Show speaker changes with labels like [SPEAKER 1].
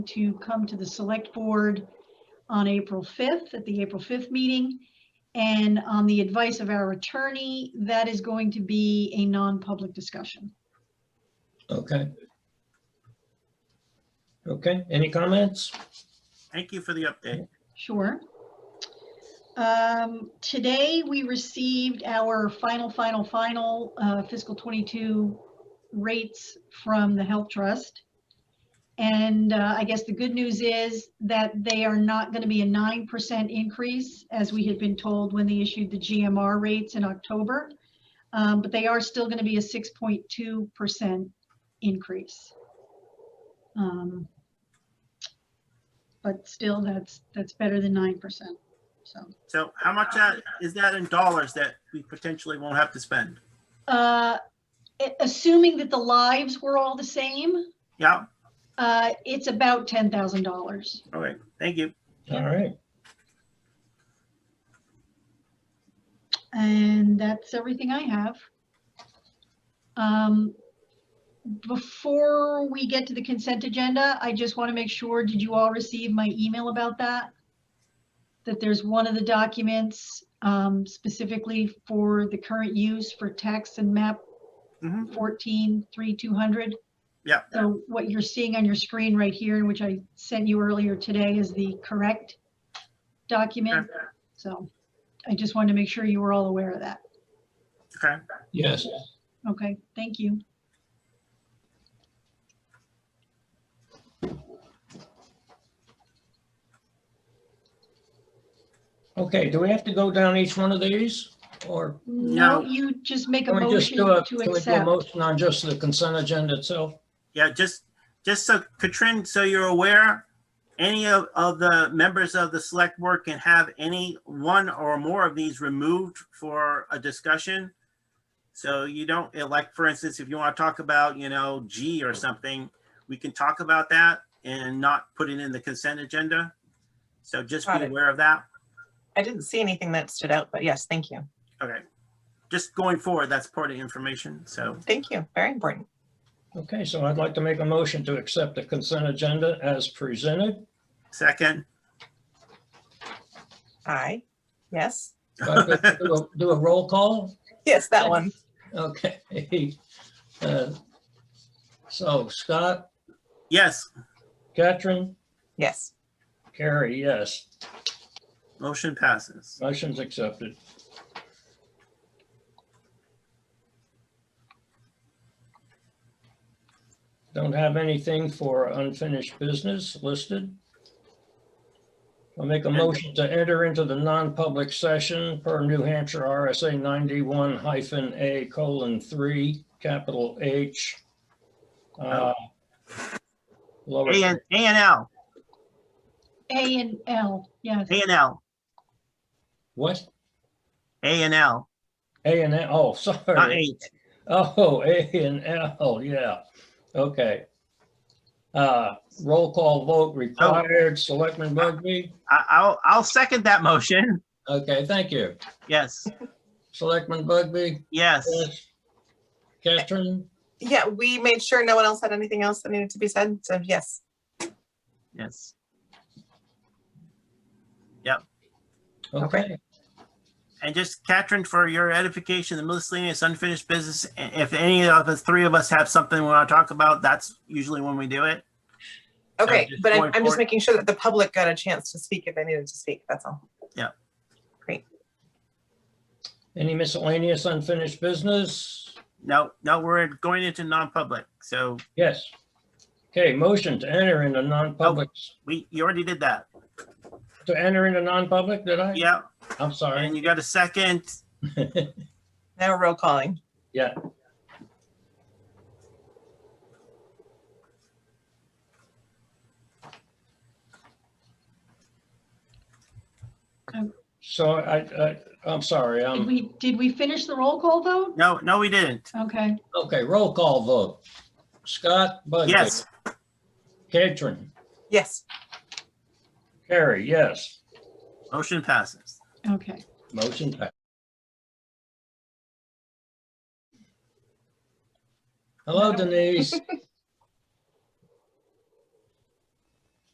[SPEAKER 1] to come to the select board on April 5th, at the April 5th meeting. And on the advice of our attorney, that is going to be a non-public discussion.
[SPEAKER 2] Okay. Okay, any comments?
[SPEAKER 3] Thank you for the update.
[SPEAKER 1] Sure. Um, Today, we received our final, final, final uh, fiscal 22 rates from the Health Trust. And uh, I guess the good news is that they are not going to be a 9% increase, as we had been told when they issued the GMR rates in October. Um, But they are still going to be a 6.2% increase. Um, But still, that's, that's better than 9%, so.
[SPEAKER 3] So how much that- is that in dollars that we potentially won't have to spend?
[SPEAKER 1] Uh, a- assuming that the lives were all the same,
[SPEAKER 3] Yeah,
[SPEAKER 1] uh, it's about ten thousand dollars.
[SPEAKER 3] all right, thank you.
[SPEAKER 2] All right,
[SPEAKER 1] And that's everything I have. Um, before we get to the consent agenda, I just want to make sure, did you all receive my email about that? That there's one of the documents, um, specifically for the current use for tax and map
[SPEAKER 3] Mhm.
[SPEAKER 1] fourteen, three, two hundred.
[SPEAKER 3] Yeah.
[SPEAKER 1] So what you're seeing on your screen right here, and which I sent you earlier today, is the correct document. So I just wanted to make sure you were all aware of that.
[SPEAKER 3] Okay,
[SPEAKER 2] yes,
[SPEAKER 1] Okay, thank you.
[SPEAKER 2] okay, do we have to go down each one of these? Or
[SPEAKER 1] No,
[SPEAKER 3] No.
[SPEAKER 1] you just make a
[SPEAKER 2] can we just
[SPEAKER 1] motion
[SPEAKER 2] do a,
[SPEAKER 1] to
[SPEAKER 2] can we do a
[SPEAKER 1] accept.
[SPEAKER 2] motion on just the consent agenda itself?
[SPEAKER 3] yeah, just, just so, Katrin, so you're aware, any of, of the members of the select board can have any one or more of these removed for a discussion. So you don't, eh, like, for instance, if you want to talk about, you know, G or something, we can talk about that and not put it in the consent agenda. So just
[SPEAKER 4] Got
[SPEAKER 3] be
[SPEAKER 4] it.
[SPEAKER 3] aware of that.
[SPEAKER 4] I didn't see anything that stood out, but yes, thank you.
[SPEAKER 3] Okay. Just going forward, that's part of information, so.
[SPEAKER 4] Thank you. Very important.
[SPEAKER 2] Okay, so I'd like to make a motion to accept the consent agenda as presented.
[SPEAKER 3] Second,
[SPEAKER 4] Aye. Yes.
[SPEAKER 2] Do I get to Do a- do a roll call?
[SPEAKER 4] Yes, that one.
[SPEAKER 2] Okay. Uh, So Scott,
[SPEAKER 3] yes,
[SPEAKER 2] Catherine,
[SPEAKER 4] Yes.
[SPEAKER 2] Carrie, yes,
[SPEAKER 3] motion passes.
[SPEAKER 2] motion's accepted. Don't have anything for unfinished business listed. I'll make a motion to enter into the non-public session per New Hampshire RSA 91 hyphen A colon 3, capital H. uh, Lower,
[SPEAKER 3] A and, A and L,
[SPEAKER 1] A and L, yes.
[SPEAKER 3] A and L,
[SPEAKER 2] what?
[SPEAKER 3] A and L,
[SPEAKER 2] A and, N- oh, sorry.
[SPEAKER 3] not H.
[SPEAKER 2] Oh, A and L, yeah, okay. Uh, roll call vote required, Selectman Bugby?
[SPEAKER 3] I, I'll, I'll second that motion.
[SPEAKER 2] Okay, thank you.
[SPEAKER 3] Yes,
[SPEAKER 2] Selectman Bugby?
[SPEAKER 3] yes.
[SPEAKER 2] Yes. Catherine?
[SPEAKER 4] Yeah, we made sure no one else had anything else that needed to be said. So yes.
[SPEAKER 3] Yes.
[SPEAKER 2] Okay,
[SPEAKER 3] And just Catherine, for your edification, the miscellaneous unfinished business, i- if any of the three of us have something we want to talk about, that's usually when we do it.
[SPEAKER 4] Okay,
[SPEAKER 3] just
[SPEAKER 4] but
[SPEAKER 3] going
[SPEAKER 4] I'm, I'm
[SPEAKER 3] forward.
[SPEAKER 4] just making sure that the public got a chance to speak if they needed to speak. That's all.
[SPEAKER 2] any miscellaneous unfinished business?
[SPEAKER 3] No, no, we're going into non-public, so
[SPEAKER 2] Yes. Okay, motion to enter into non-public,
[SPEAKER 3] we, you already did that.
[SPEAKER 2] to enter into non-public, did I?
[SPEAKER 3] Yeah,
[SPEAKER 2] I'm sorry.
[SPEAKER 3] and you got a second.
[SPEAKER 4] Now roll calling.
[SPEAKER 2] Yeah, so I, I, I'm sorry,
[SPEAKER 1] Did
[SPEAKER 2] um,
[SPEAKER 1] we, did we finish the roll call vote?
[SPEAKER 3] No, no, we didn't.
[SPEAKER 1] Okay,
[SPEAKER 2] okay, roll call vote. Scott Bugby?
[SPEAKER 3] Yes.
[SPEAKER 2] Catherine?
[SPEAKER 4] Yes.
[SPEAKER 2] Carrie, yes.
[SPEAKER 3] Motion passes.
[SPEAKER 1] okay.
[SPEAKER 2] Motion passed. Hello Denise.